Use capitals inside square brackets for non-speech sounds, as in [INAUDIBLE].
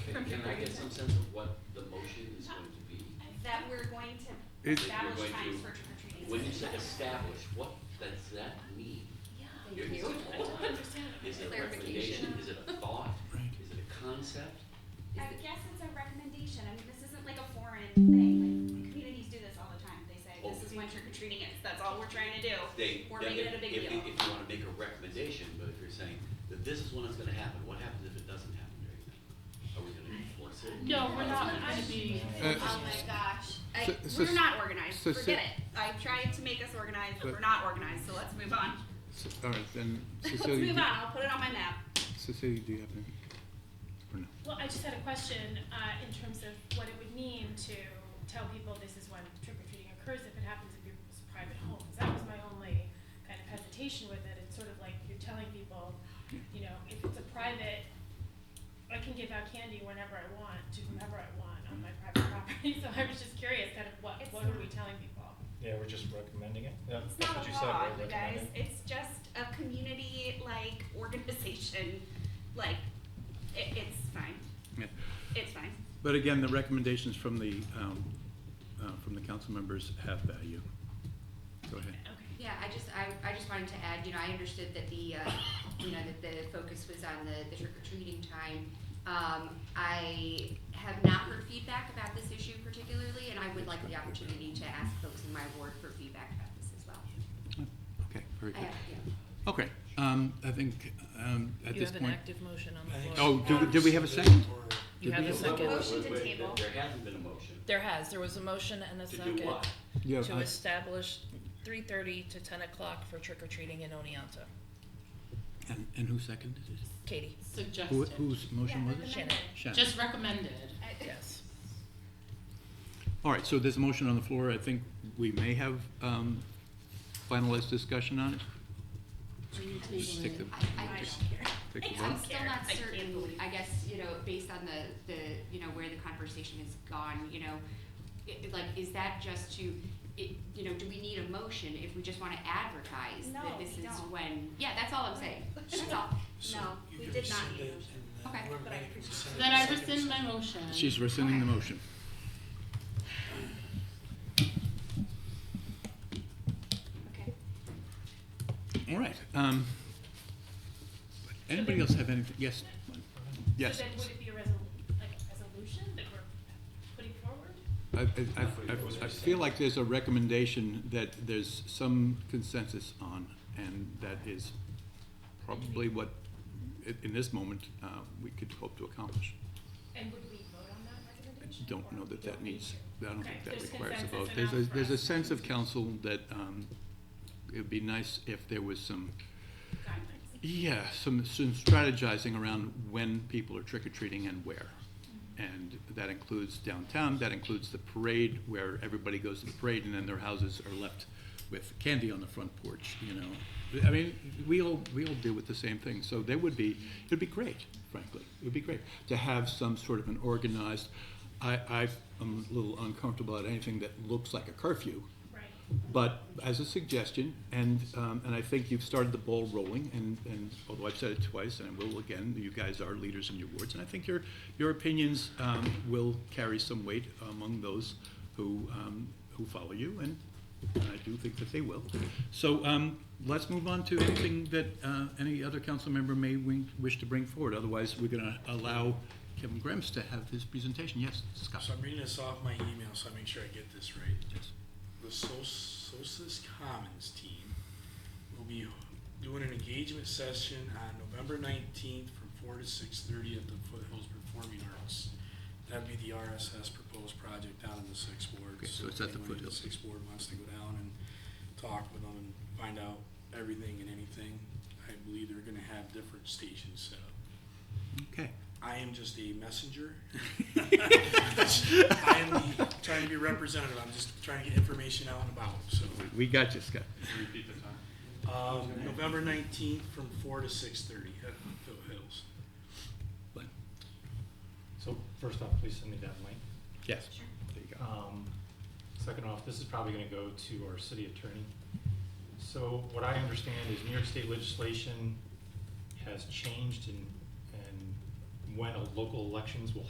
Can can I get some sense of what the motion is going to be? That we're going to It- establish We're going times to- for trick or treating. When you say establish, what does that mean? Thank you. [LAUGHS] Is it a recommendation? Is it a thought? Is it a concept? I guess it's a recommendation, I mean, this isn't like a foreign thing, like, communities do this all the time, they say, this is when trick or treating is, that's all we're trying to do. They, We're making yeah, if- it a big if- deal. If you want to make a recommendation, but if you're saying that this is when it's going to happen, what happens if it doesn't happen during that? Are we going to enforce it? No, we're not, Are we I gonna- uh, mean, Oh my gosh, I, So- so we're s- not organized, so forget s- it, I tried to make us organized, but But- we're not organized, so let's move on. So- All right, then [LAUGHS] Let's move Cecilia, on, do- I'll put it on my map. Cecilia, do you have any? Or no? well, I just had a question, uh, in terms of what it would mean to tell people this is when trick or treating occurs, if it happens at people's private homes. That was my only kind of hesitation with it, it's sort of like you're telling people, you know, if it's a private, I can give out candy whenever I want, to whomever I want on my private property, [LAUGHS] so I was just curious, kind of what, It's what are not- we telling people? Yeah, we're just recommending it. Yeah, It's that's not what a you said, law, we're you guys. recommending. It's just a community like organization. Like, it, it's fine. Yeah. It's fine. But again, the recommendations from the, um, uh, from the council members have value. Go ahead. Okay. Yeah, I just, I, I just wanted to add, you know, I understood that the, uh, you know, that the focus was on the, the trick or treating time. Um, I have not heard feedback about this issue particularly, and I would like the opportunity to ask folks in my ward for feedback about this as well. Okay, very I good. have, yeah. Okay, um, I think, um, at You this have an point. active motion on I the think- Oh, floor. do, did we have a second? You did have we a have- second. Wait, Motion to wait, table. There hasn't been a motion. There has, there was a motion and a To second. do what? Yeah, to I- establish three thirty to ten o'clock for trick or treating in Oneonta. and, and who seconded it? Katie, Who, Suggested. whose motion was it? Shannon, Shannon. Just recommended. yes. All right, so there's a motion on the floor. I think we may have, um, finalized discussion on it. Just take the, I, I I just, don't care. take the I'm vote. still care. not I can't certain, believe- I guess, you know, based on the, the, you know, where the conversation has gone, you know, i- i- like, is that just to, it, you know, do we need a motion if we just wanna advertise No, that this we is don't. when, yeah, that's all I'm saying, that's all. So No, you we can did not rescind need it, a motion. and then Okay. whoever But I made it appreciate rescind it. it, Then I second rescind my rescind. motion. She's rescinding the motion. Okay. All right, um, anybody else have anything? Yes, yes. So then would it be a resol- like a resolution that we're putting forward? I, I, I- I- I feel like there's a recommendation that there's some consensus on, and that is probably what, i- in this moment, uh, we could hope to accomplish. And would we vote on that I recommendation? Don't know that that needs, I don't think that There's requires a consensus vote. There's a, enough for there's a us. sense of council that, um, it'd be nice if there was some, Guidelines. yeah, some, some strategizing around when people are trick or treating and where. And that includes downtown, that includes the parade where everybody goes to the parade and then their houses are left with candy on the front porch, you know. I mean, we all, we all deal with the same thing, so there would be, it'd be great, frankly, it would be great to have some sort of an organized, I, I am a little uncomfortable at anything that looks like a curfew, Right. but as a suggestion, and, um, and I think you've started the ball rolling, and, and although I've said it twice, and I will again, you guys are leaders in your wards, and I think your, your opinions, um, will carry some weight among those who, um, who follow you, and I do think that they will. So, um, let's move on to anything that, uh, any other council member may wing- wish to bring forward, otherwise we're gonna allow Kevin Grimes to have his presentation. Yes, Scott? So I'm reading this off my email, so I make sure I get this right. Yes. The Sos- Sosis Commons team will be doing an engagement session on November nineteenth from four to six thirty at the Foothills Performing Arts. That'd be the RSS proposed project down in the sixth ward. Okay, so it's at the anyone in Foothills. Sixth ward wants to go down and talk with them and find out everything and anything. I believe they're gonna have different stations set up. Okay. I am just a [LAUGHS] messenger. I am the, trying to be representative. I'm just trying to get information out and about. So, We got you, Scott. um, November nineteenth from four to six thirty at Phil Hills. So first off, please send me that link. Yes. There you go. Um, Second off, this is probably gonna go to our city attorney. So what I understand is New York state legislation has changed in, and when a local elections will